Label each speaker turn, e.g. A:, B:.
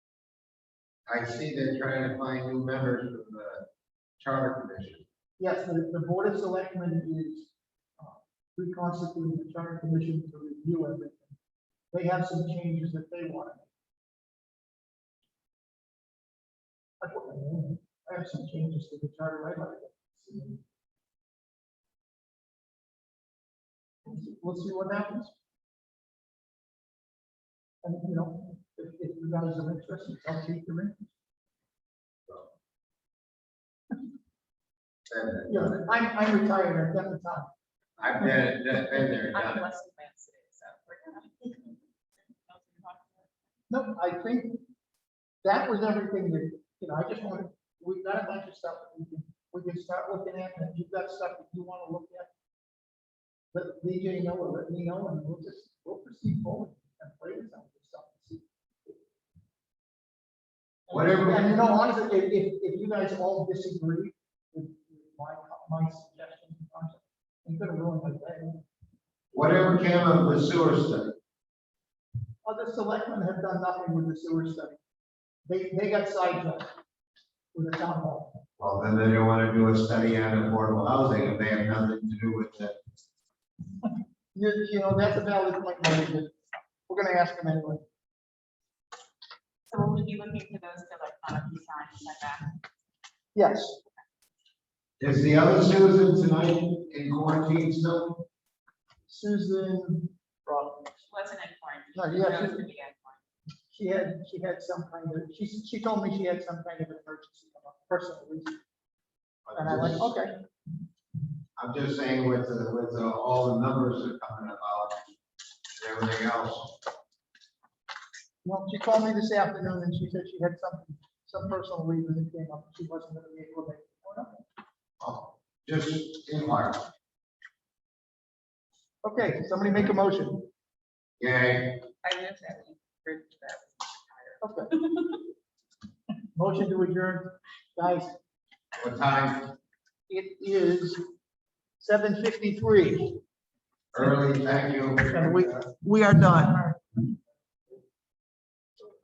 A: I see they're trying to find new members for the charter commission.
B: Yes, the, the board of selectmen is uh, reconstituting the charter commission to review everything. They have some changes that they want. to make. That's what I mean. I have some changes to the charter right away. We'll see what happens. And, you know, if, if you guys are interested, I'll keep them in.
A: And
B: Yeah, I'm, I'm retired, I've got the time.
A: I've been, been there,
C: I'm
A: done it.
C: blessed with my today, so we're gonna.
B: No, I think that was everything that, you know, I just wanted, we've got a bunch of stuff that we can, we can start looking at, and if you've got stuff that you wanna look at. Let BJ know, or let me know, and we'll just, we'll proceed forward and play with some of this stuff. and see.
A: Whatever we-
B: And you know, honestly, if, if, if you guys all disagree with with my, my suggestion, I'm gonna ruin my day.
A: Whatever came of the sewer study,
B: Other selectmen have done nothing with the sewer study. They, they got sidetracked with the town hall.
A: well, then they don't wanna do a study on affordable housing if they have nothing to do with it.
B: You, you know, that's a valid point, Mary, but we're gonna ask them anyway.
C: So we'll be looking for those to like, kind of be signed, sent back.
B: Yes,
A: Is the other Susan tonight in quarantine still?
B: Susan, Rob,
C: She wasn't in quarantine.
B: No,
C: She
B: yeah,
C: chose
B: she-
C: to be in quarantine.
B: she had, she had some kind of, she, she told me she had some kind of emergency, come up, personal reason. And I went, okay,
A: I'm just saying with, the- with the- all the numbers that are coming about and everything else.
B: well, she called me this afternoon and she said she had something, some personal reason that came up, she wasn't gonna be able to make. it. Oh, no.
A: Oh, Just inquire.
B: "Oh, Okay, somebody make a motion,
A: Yay,
C: I live that way. Bridge that.
B: okay. Motion to adjourn, guys.
A: what time?
B: It is seven fifty-three.
A: Early, thank you.
B: And we are done.